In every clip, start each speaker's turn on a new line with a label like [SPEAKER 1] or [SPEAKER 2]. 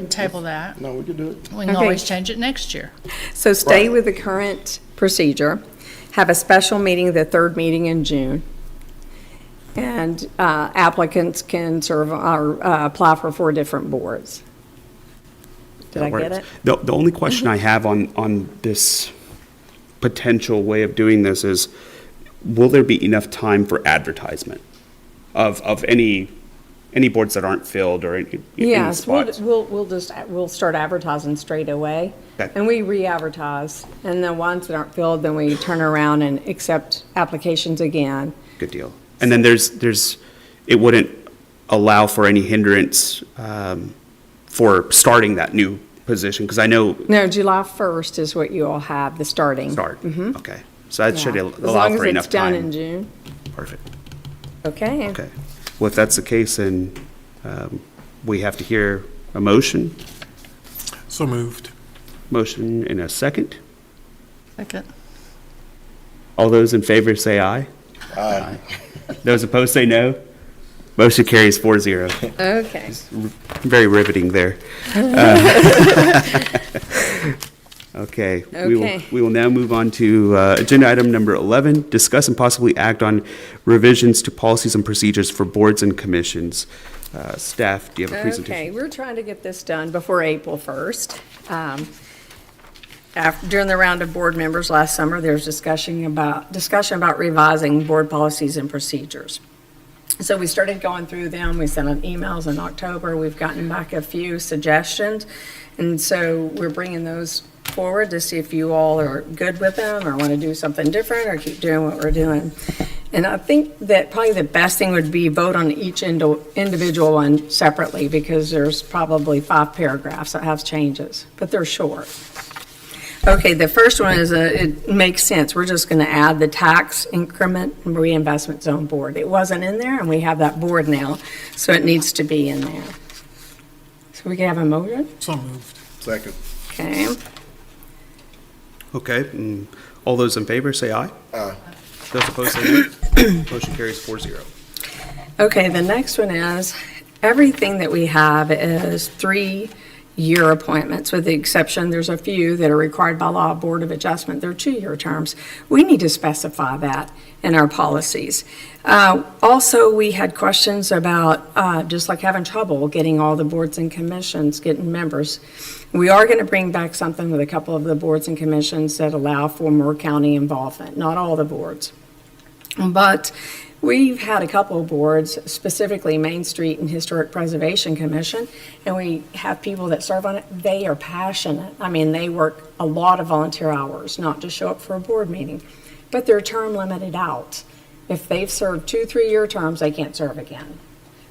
[SPEAKER 1] And Table that.
[SPEAKER 2] No, we could do it.
[SPEAKER 1] We can
[SPEAKER 3] Okay.
[SPEAKER 1] always change it next year.
[SPEAKER 3] So stay
[SPEAKER 2] Right.
[SPEAKER 3] with the current procedure, have a special meeting, the third meeting in June, and uh, applicants can serve or uh, apply for four different boards. Did
[SPEAKER 4] That
[SPEAKER 3] I get
[SPEAKER 4] works.
[SPEAKER 3] it? Mm-hmm.
[SPEAKER 4] The, the only question I have on, on this potential way of doing this is, will there be enough time for advertisement of, of any, any boards that aren't filled or any any
[SPEAKER 3] Yes, we'll,
[SPEAKER 4] spots?
[SPEAKER 3] we'll, we'll just, we'll start advertising straight away.
[SPEAKER 4] Okay.
[SPEAKER 3] And we re-advertise, and the ones that aren't filled, then we turn around and accept applications again.
[SPEAKER 4] Good deal. And then there's, there's, it wouldn't allow for any hindrance um, for starting that new position, because I know,
[SPEAKER 3] No, July 1st is what you all have, the starting. Mm-hmm.
[SPEAKER 4] start, okay. So that should
[SPEAKER 3] Yeah.
[SPEAKER 4] al- allow
[SPEAKER 3] As
[SPEAKER 4] for enough
[SPEAKER 3] long as it's done in
[SPEAKER 4] time.
[SPEAKER 3] June.
[SPEAKER 4] Perfect.
[SPEAKER 3] Okay.
[SPEAKER 4] Okay. Well, if that's the case, then um, we have to hear a motion,
[SPEAKER 5] So moved.
[SPEAKER 4] motion in a second.
[SPEAKER 1] Second.
[SPEAKER 4] All those in favor say aye. Aye. Those opposed say no. Motion carries four zero.
[SPEAKER 3] Okay.
[SPEAKER 4] Very riveting there. Uh, Okay. we will-
[SPEAKER 3] Okay.
[SPEAKER 4] We will now move on to uh, agenda item number 11, discuss and possibly act on revisions to policies and procedures for boards and commissions. Uh, Staff, do you have a presentation?
[SPEAKER 3] Okay, we're trying to get this done before April 1st. Um, af- During the round of board members last summer, there was discussion about, discussion about revising board policies and procedures. So we started going through them, we sent out emails in October, we've gotten back a few suggestions. And so we're bringing those forward to see if you all are good with them, or want to do something different, or keep doing what we're doing. And I think that probably the best thing would be vote on each indo- individual one separately, because there's probably five paragraphs that have changes, but they're short. Okay, the first one is, a- it makes sense, we're just going to add the tax increment reinvestment zone board. It wasn't in there, and we have that board now, so it needs to be in there. So we can have a motion,
[SPEAKER 5] So moved.
[SPEAKER 2] Second.
[SPEAKER 3] okay?
[SPEAKER 4] Okay, and all those in favor, say aye.
[SPEAKER 2] Aye.
[SPEAKER 4] Those opposed, say no. Motion carries four zero.
[SPEAKER 3] Okay, the next one is, everything that we have is three-year appointments, with the exception, there's a few that are required by law, Board of Adjustment, they're two-year terms. We need to specify that in our policies. Uh, Also, we had questions about, uh, just like having trouble getting all the boards and commissions, getting members. We are going to bring back something with a couple of the boards and commissions that allow for more county involvement, not all the boards. But we've had a couple of boards, specifically Main Street and Historic Preservation Commission, and we have people that serve on it. They are passionate. I mean, they work a lot of volunteer hours, not just show up for a board meeting, but they're term limited out. If they've served two, three-year terms, they can't serve again.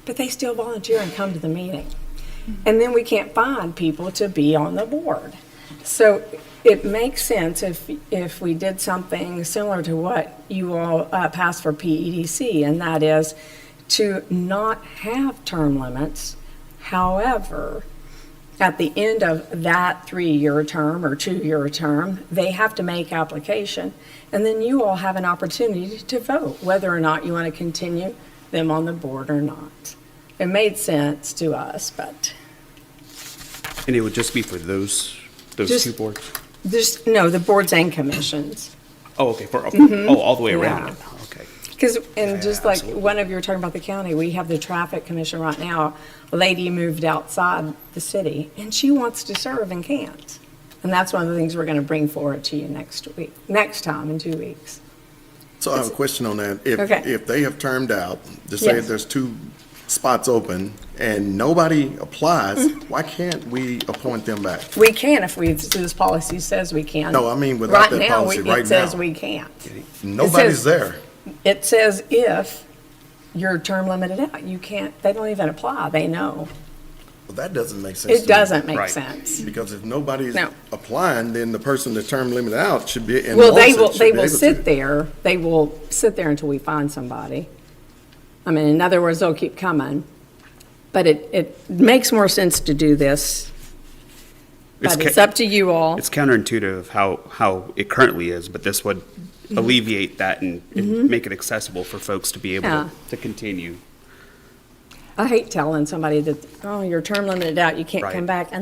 [SPEAKER 3] But they still volunteer and come to the meeting. And then we can't find people to be on the board. So it makes sense if, if we did something similar to what you all uh, passed for PEDC, and that is to not have term limits. However, at the end of that three-year term or two-year term, they have to make application, and then you all have an opportunity to vote whether or not you want to continue them on the board or not. It made sense to us, but
[SPEAKER 4] And it would just be for those, those
[SPEAKER 3] Just- Mm-hmm.
[SPEAKER 4] two boards?
[SPEAKER 3] there's, no, the boards and commissions.
[SPEAKER 4] Oh, okay, for, oh, all the way around. Okay.
[SPEAKER 3] Because, and just like, one of you were talking about the county, we have the traffic commission right now. A lady moved outside the city, and she wants to serve and can't. And that's one of the things we're gonna bring forward to you next week, next time in two weeks.
[SPEAKER 2] So I have a question on that. If,
[SPEAKER 3] Okay.
[SPEAKER 2] if they have termed out, just say
[SPEAKER 3] Yes.
[SPEAKER 2] there's two spots open and nobody applies,
[SPEAKER 3] Mm-hmm.
[SPEAKER 2] why can't we appoint them back?
[SPEAKER 3] We can if we, this policy says we can.
[SPEAKER 2] No, I mean
[SPEAKER 3] Right
[SPEAKER 2] without that
[SPEAKER 3] now,
[SPEAKER 2] policy,
[SPEAKER 3] we-
[SPEAKER 2] right
[SPEAKER 3] It says
[SPEAKER 2] now.
[SPEAKER 3] we can't.
[SPEAKER 2] Nobody's there.
[SPEAKER 3] It says if you're term limited out, you can't, they don't even apply, they know.
[SPEAKER 2] Well, that doesn't make sense. to
[SPEAKER 3] It
[SPEAKER 2] me.
[SPEAKER 3] doesn't make
[SPEAKER 4] Right.
[SPEAKER 3] sense.
[SPEAKER 2] Because if nobody's
[SPEAKER 3] No.
[SPEAKER 2] applying, then the person that's term limited out should be, and
[SPEAKER 3] Well, they
[SPEAKER 2] wants
[SPEAKER 3] will,
[SPEAKER 2] it,
[SPEAKER 3] they
[SPEAKER 2] should be
[SPEAKER 3] will
[SPEAKER 2] able
[SPEAKER 3] sit
[SPEAKER 2] to.
[SPEAKER 3] there, they will sit there until we find somebody. I mean, in other words, they'll keep coming, but it, it makes more sense to do this, but
[SPEAKER 4] ca-
[SPEAKER 3] it's up to you all.
[SPEAKER 4] It's counterintuitive how, how it currently is, but this would
[SPEAKER 3] Mm-hmm.
[SPEAKER 4] alleviate that and and make it accessible for folks to be able
[SPEAKER 3] Yeah.
[SPEAKER 4] to- to continue.
[SPEAKER 3] I hate telling somebody that, oh, you're term limited out, you can't
[SPEAKER 4] Right.
[SPEAKER 3] come back,